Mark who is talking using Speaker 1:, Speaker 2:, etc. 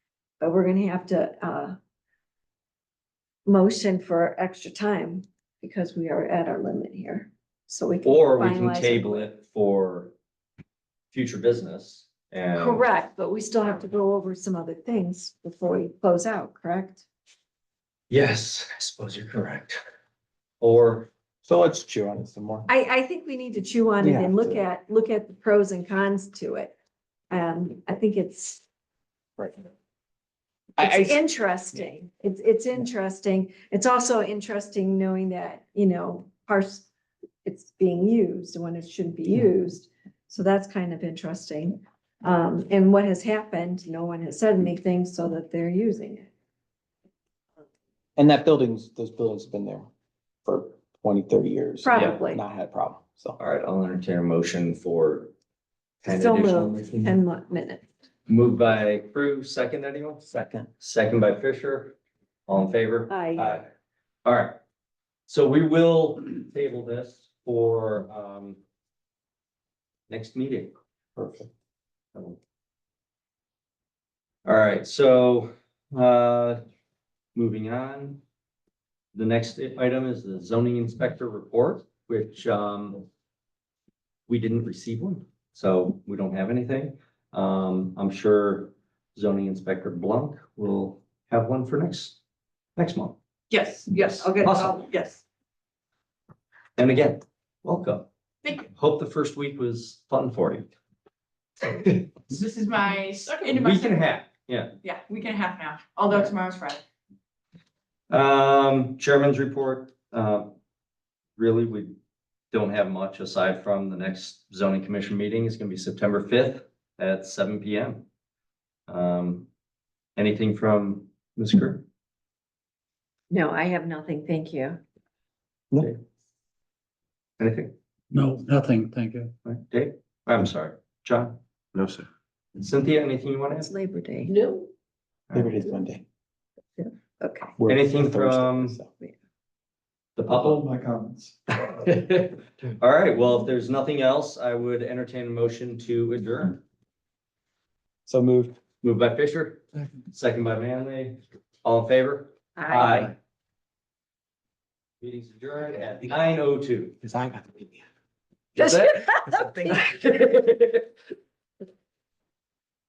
Speaker 1: But we're gonna have to, uh. Motion for extra time because we are at our limit here, so we.
Speaker 2: Or we
Speaker 1: finalize
Speaker 2: can
Speaker 1: it.
Speaker 2: table it for future business and.
Speaker 1: Correct, but we still have to go over some other things before we close out, correct?
Speaker 2: Yes, I suppose you're correct. Or,
Speaker 3: So let's chew on it some more.
Speaker 1: I, I think we need to chew on
Speaker 3: We
Speaker 1: it and
Speaker 3: have
Speaker 1: look
Speaker 3: to.
Speaker 1: at, look at the pros and cons to it. Um, I think it's.
Speaker 3: Right.
Speaker 1: It's
Speaker 3: I,
Speaker 1: interesting. It's, it's interesting. It's also interesting knowing that, you know, parts, it's being used when it shouldn't be
Speaker 3: Yeah.
Speaker 1: used. So that's kind of interesting. Um, and what has happened, no one has said anything so that they're using it.
Speaker 3: and that buildings, those buildings have been there for 20, 30 years. and
Speaker 1: Probably.
Speaker 3: Not had a problem, so.
Speaker 2: all right, I'll entertain a motion for. ten
Speaker 1: So
Speaker 2: additional
Speaker 1: moved.
Speaker 2: meetings.
Speaker 1: Ten mo- minutes.
Speaker 2: Moved by Crew, second anyone?
Speaker 3: Second.
Speaker 2: Second by Fisher. All in favor?
Speaker 3: Uh,
Speaker 1: I,
Speaker 2: Aye. All right. So we will table this for, um, next meeting.
Speaker 3: Perfect.
Speaker 2: All right, so, uh, moving on. The next item is the zoning inspector report, which, um, we didn't receive one, so we don't have anything. Um, I'm sure zoning inspector Blanc will have one for next, next month.
Speaker 4: Yes, yes, I'll get,
Speaker 2: Awesome.
Speaker 4: I'll, yes.
Speaker 2: And again, welcome.
Speaker 4: Thank you.
Speaker 2: Hope the first week was fun for you.
Speaker 4: This is my second, into my
Speaker 2: Week and a
Speaker 4: second,
Speaker 2: half, yeah.
Speaker 4: yeah, week and a half now, although tomorrow's Friday.
Speaker 2: Um, chairman's report, uh, really, we don't have much aside from the next zoning commission meeting is gonna be September fifth at seven P M. Um, anything from Ms. Kerr?
Speaker 1: no, I have nothing. Thank you.
Speaker 2: Anything?
Speaker 5: No, nothing, thank you.
Speaker 2: All right, Dave? I'm sorry, John?
Speaker 5: No, sir.
Speaker 2: Cynthia, anything you want to
Speaker 1: It's
Speaker 2: ask?
Speaker 1: Labor Day.
Speaker 4: No.
Speaker 3: Liberty is Monday.
Speaker 1: Okay.
Speaker 3: We're
Speaker 2: Anything
Speaker 3: Thursday,
Speaker 2: from-
Speaker 3: so.
Speaker 2: The public?
Speaker 5: my comments.
Speaker 2: All right, well, if there's nothing else, I would entertain a motion to adjourn.
Speaker 3: So moved.
Speaker 2: Moved by Fisher, second by Manley. All in favor?
Speaker 1: I.
Speaker 2: Meeting's adjourned at nine oh two.
Speaker 3: Cause I got the baby.
Speaker 2: That's it?